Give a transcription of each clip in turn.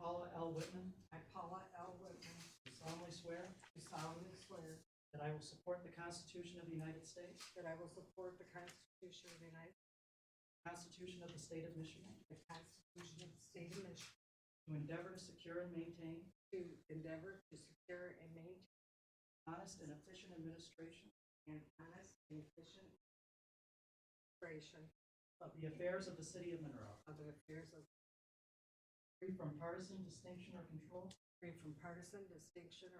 L. Whitman. I, Paula L. Whitman. Do solemnly swear do solemnly swear that I will support the Constitution of the United States, that I will support the Constitution of the United the Constitution of the State of Michigan, the Constitution of the State of Michigan, to endeavor to secure and maintain to endeavor to secure and maintain honest and efficient administration an honest and efficient administration of the affairs of the City of Monroe, of the affairs of, free from partisan distinction or control. free from partisan distinction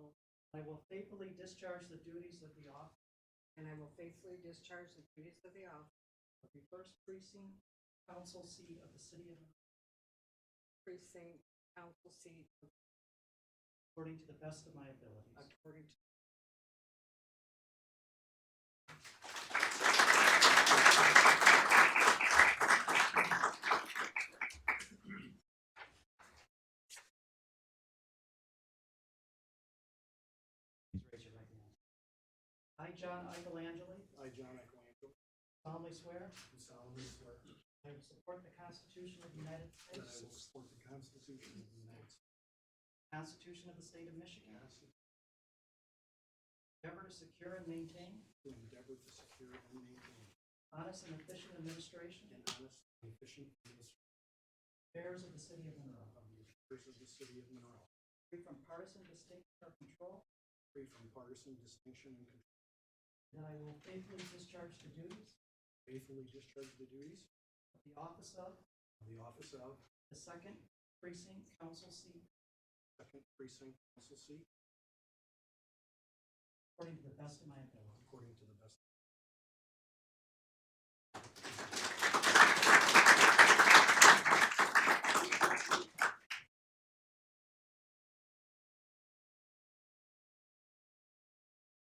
or, I will faithfully discharge the duties of the office and I will faithfully discharge the duties of the office of the First Precinct Council seat of the City of Monroe precinct council seat according to the best of my abilities. according to Please raise your right hand. I, John Icolangelo, I, John Echolandro, solemnly swear do solemnly swear that I will support the Constitution of the United I will States, support the Constitution of the United States, the Constitution of the State of Michigan, to endeavor to secure and maintain endeavor to secure and maintain honest and efficient administration an honest and efficient administration affairs of the City of Monroe, of the affairs of the city of Monroe, free from partisan distinction or control, free from partisan distinction and control, that I will faithfully discharge the duties faithfully discharge the duties of the office of of the office of the Second Precinct Council seat Second Precinct Council seat according to the best of my ability. according to the best.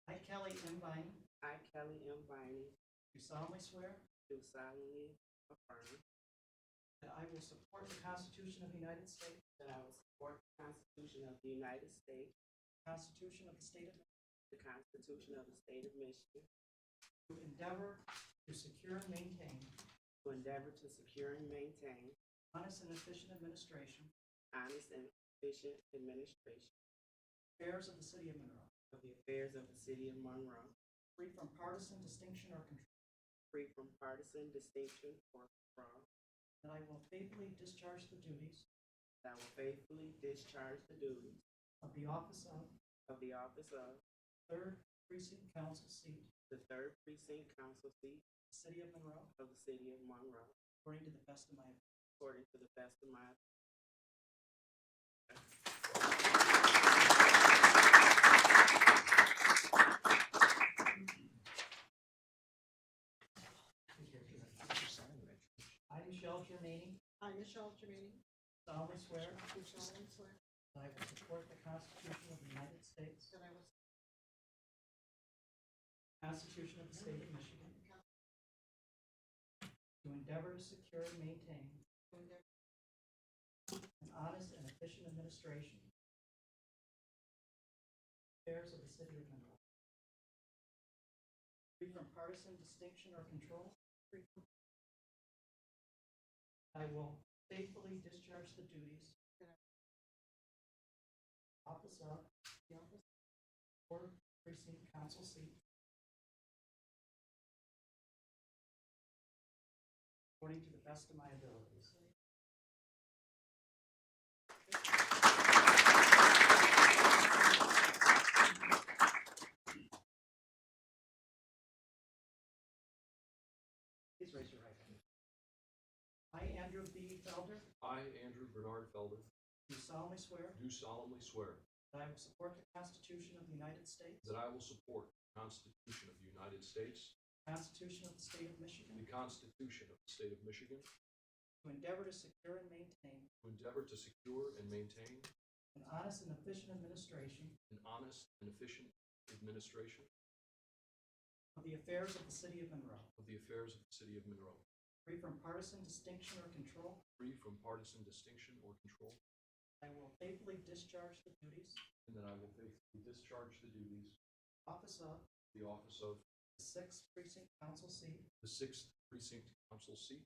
I, Kelly M. Bynum, I, Kelly M. Viney, do solemnly swear do solemnly affirm that I will support the Constitution of the United States, that I will support the Constitution of the United States, the Constitution of the State of the Constitution of the State of Michigan, to endeavor to secure and maintain to endeavor to secure and maintain honest and efficient administration honest and efficient administration affairs of the city of Monroe, of the affairs of the city of Monroe, free from partisan distinction or control, free from partisan distinction or fraud, that I will faithfully discharge the duties that I will faithfully discharge the duties of the office of of the office of Third Precinct Council seat, the Third Precinct Council seat the city of Monroe, of the city of Monroe, according to the best of my ability. according to the best of my I, Michelle Germaine, I, Michelle Tremaine, solemnly swear do solemnly swear that I will support the Constitution of the United States, that I will the Constitution of the State of Michigan, to endeavor to secure and maintain endeavor an honest and efficient administration affairs of the city of Monroe. Free from partisan distinction or control. free from- I will faithfully discharge the duties office of the office or precinct council seat according to the best of my abilities. Please raise your right hand. I, Andrew B. Felder, I, Andrew Bernard Felder, do solemnly swear do solemnly swear that I will support the Constitution of the United States, that I will support the Constitution of the United States, the Constitution of the State of Michigan, the Constitution of the State of Michigan, to endeavor to secure and maintain to endeavor to secure and maintain an honest and efficient administration an honest and efficient administration of the affairs of the City of Monroe, of the affairs of the City of Monroe, free from partisan distinction or control. free from partisan distinction or control, I will faithfully discharge the duties and that I will faithfully discharge the duties of office of of the office of the Sixth Precinct Council seat, the Sixth Precinct Council seat